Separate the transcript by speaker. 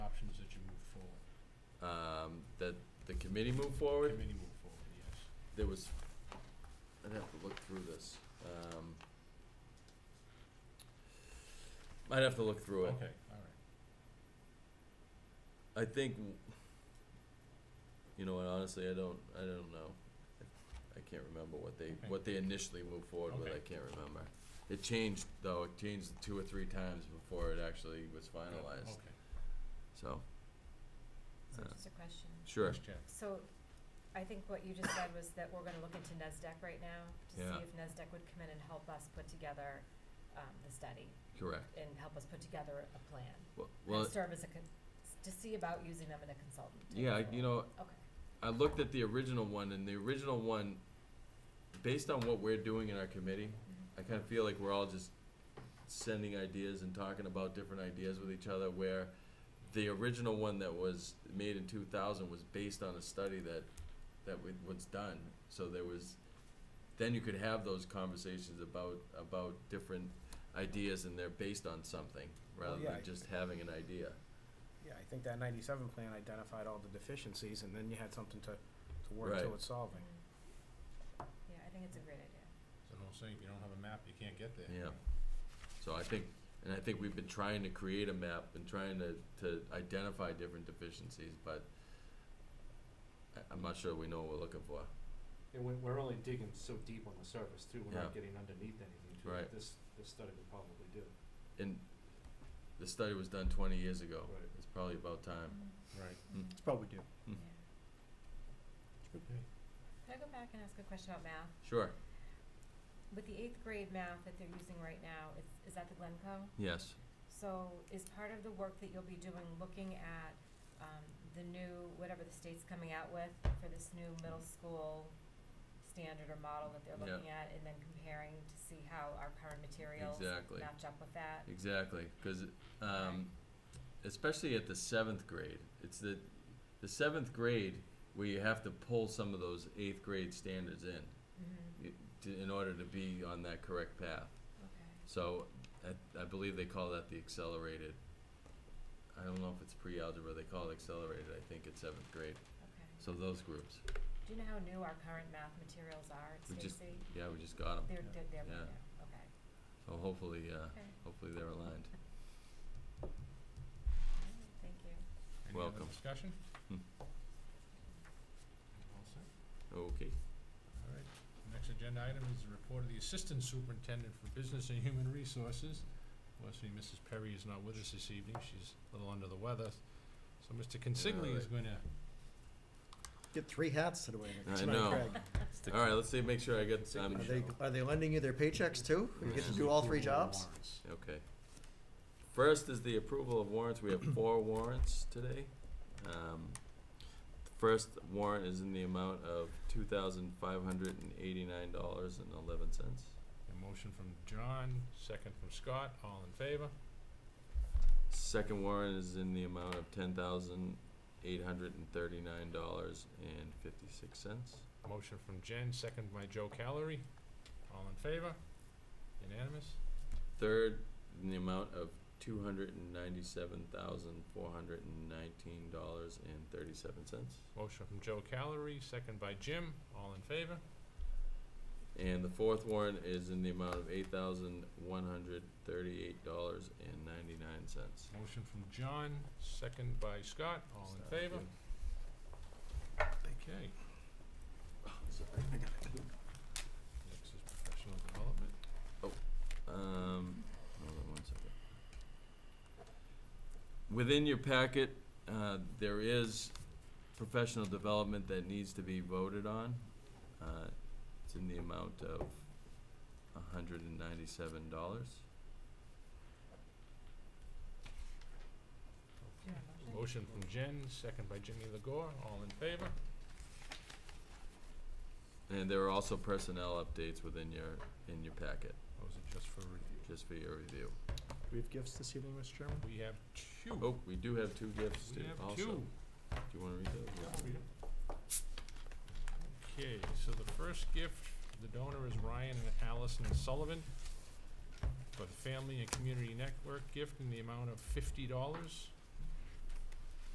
Speaker 1: um, that the committee move forward?
Speaker 2: Committee move forward, yes.
Speaker 1: There was, I'd have to look through this. Um, I'd have to look through it.
Speaker 2: Okay, all right.
Speaker 1: I think, w- you know, and honestly, I don't, I don't know. I can't remember what they,
Speaker 2: Okay.
Speaker 1: what they initially moved forward with,
Speaker 2: Okay.
Speaker 1: I can't remember. It changed, though, it changed two or three times before it actually was finalized,
Speaker 2: Okay.
Speaker 1: so,
Speaker 3: So
Speaker 1: Uh,
Speaker 3: just a question.
Speaker 1: sure.
Speaker 2: Let's check.
Speaker 3: So I think what you just said was that we're gonna look into NESDEC right now to
Speaker 1: Yeah.
Speaker 3: see if NESDEC would come in and help us put together um the study
Speaker 1: Correct.
Speaker 3: and help us put together a plan.
Speaker 1: Well-
Speaker 3: And
Speaker 1: Well,
Speaker 3: serve as a con- to see about using them in a consultant. type
Speaker 1: yeah,
Speaker 3: role.
Speaker 1: you know,
Speaker 3: Okay,
Speaker 1: I looked at the original one, and the original one, based on what we're doing in our committee,
Speaker 3: Mm-hmm.
Speaker 1: I kind of feel like we're all just sending ideas and talking about different ideas with each other. Where the original one that was made in 2000 was based on a study that that wa- was done. So there was, then you could have those conversations about about different ideas, and they're based on something rather
Speaker 4: yeah, I-
Speaker 1: than just having an idea.
Speaker 4: Yeah, I think that ninety-seven plan identified all the deficiencies, and then you had something to, to work
Speaker 1: Right.
Speaker 4: towards solving.
Speaker 3: Mm. Mm-hmm. Yeah, I think it's a great idea.
Speaker 2: So don't say, if you don't have a map, you can't get there.
Speaker 1: Yeah. So I think, and I think we've been trying to create a map and trying to, to identify different deficiencies, but I, I'm not sure we know what we're looking for.
Speaker 5: And we're, we're only digging so deep on the surface too, we're not
Speaker 1: Yeah.
Speaker 5: getting underneath anything too,
Speaker 1: Right.
Speaker 5: that this, this study would probably do.
Speaker 1: And the study was done twenty years ago.
Speaker 5: Right.
Speaker 1: It's probably about time.
Speaker 2: Right.
Speaker 1: Um, Mm.
Speaker 4: It's probably due.
Speaker 3: Mm-hmm. Yeah.
Speaker 1: Mm.
Speaker 2: Okay.
Speaker 3: Can I go back and ask a question about math?
Speaker 1: Sure,
Speaker 3: With the eighth grade math that they're using right now, it's, is that the Glencoe?
Speaker 1: yes,
Speaker 3: So is part of the work that you'll be doing looking at um the new, whatever the state's coming out with for this new middle school standard or model that they're
Speaker 1: Yeah.
Speaker 3: looking at and then comparing to see how our current materials
Speaker 1: exactly, E
Speaker 3: match up with that?
Speaker 1: exactly, cause, um, especially at the seventh grade, it's the, the seventh grade where you have to pull some of those eighth grade standards in
Speaker 3: Mhm,
Speaker 1: i- to, in order to be on that correct path.
Speaker 3: okay.
Speaker 1: So I, I believe they call that the accelerated. I don't know if it's pre-algebra. They call it accelerated. I think it's seventh grade.
Speaker 3: Okay.
Speaker 1: So those groups,
Speaker 3: Do you know how new our current math materials are at
Speaker 1: We just-
Speaker 3: Stacy?
Speaker 1: yeah, we just got them.
Speaker 3: They're they're they're
Speaker 1: Yeah.
Speaker 3: right now, okay.
Speaker 1: So hopefully, uh,
Speaker 3: Okay.
Speaker 1: hopefully they're aligned.
Speaker 3: Alright, Thank you.
Speaker 2: Any
Speaker 1: Welcome.
Speaker 2: other discussion?
Speaker 1: Hmm.
Speaker 2: All set.
Speaker 1: Okay.
Speaker 2: All right. Next agenda item is the report of the Assistant Superintendent for Business and Human Resources. Obviously, Mrs. Perry is not with us this evening. She's a little under the weather. So Mr. Consigli is
Speaker 1: right.
Speaker 2: going to
Speaker 6: Get three hats today.
Speaker 1: I
Speaker 6: tonight,
Speaker 1: know.
Speaker 6: Craig.
Speaker 1: All right. Let's see. Make sure I get.
Speaker 2: Stick
Speaker 1: I'm,
Speaker 6: Are they, are they lending you their paychecks too? You get to do all three jobs?
Speaker 1: okay. First is the approval of warrants. We have four warrants today. Um, the first warrant is in the amount of two thousand five hundred and eighty-nine dollars and eleven cents.
Speaker 2: A motion from John, second from Scott, all in favor?
Speaker 1: Second warrant is in the amount of ten thousand eight hundred and thirty-nine dollars and fifty-six cents.
Speaker 2: Motion from Jen, second by Joe Calery, all in favor? Unanimous?
Speaker 1: Third, in the amount of two hundred and ninety-seven thousand four hundred and nineteen dollars and thirty-seven cents.
Speaker 2: Motion from Joe Calery, second by Jim, all in favor?
Speaker 1: And the fourth warrant is in the amount of eight thousand one hundred thirty-eight dollars and ninety-nine cents.
Speaker 2: Motion from John, second by Scott, all in favor? Okay. Next is professional development.
Speaker 1: Um, hold on one second. Within your packet, uh, there is professional development that needs to be voted on. Uh, It's in the amount of hundred and ninety-seven dollars.
Speaker 3: Do you have a
Speaker 2: Motion
Speaker 3: motion?
Speaker 2: from Jen, second by Jimmy Legore, all in favor?
Speaker 1: And there are also personnel updates within your, in your packet,
Speaker 2: Those are just for review.
Speaker 1: just for your review.
Speaker 4: Do we have gifts this evening, Mr. Chairman?
Speaker 2: We have two.
Speaker 1: Oh, we do have two gifts
Speaker 2: We
Speaker 1: too,
Speaker 2: have
Speaker 1: also.
Speaker 2: two.
Speaker 1: Do you wanna read those?
Speaker 2: Okay, so the first gift, the donor is Ryan and Allison Sullivan for the Family and Community Network gift in the amount of fifty dollars.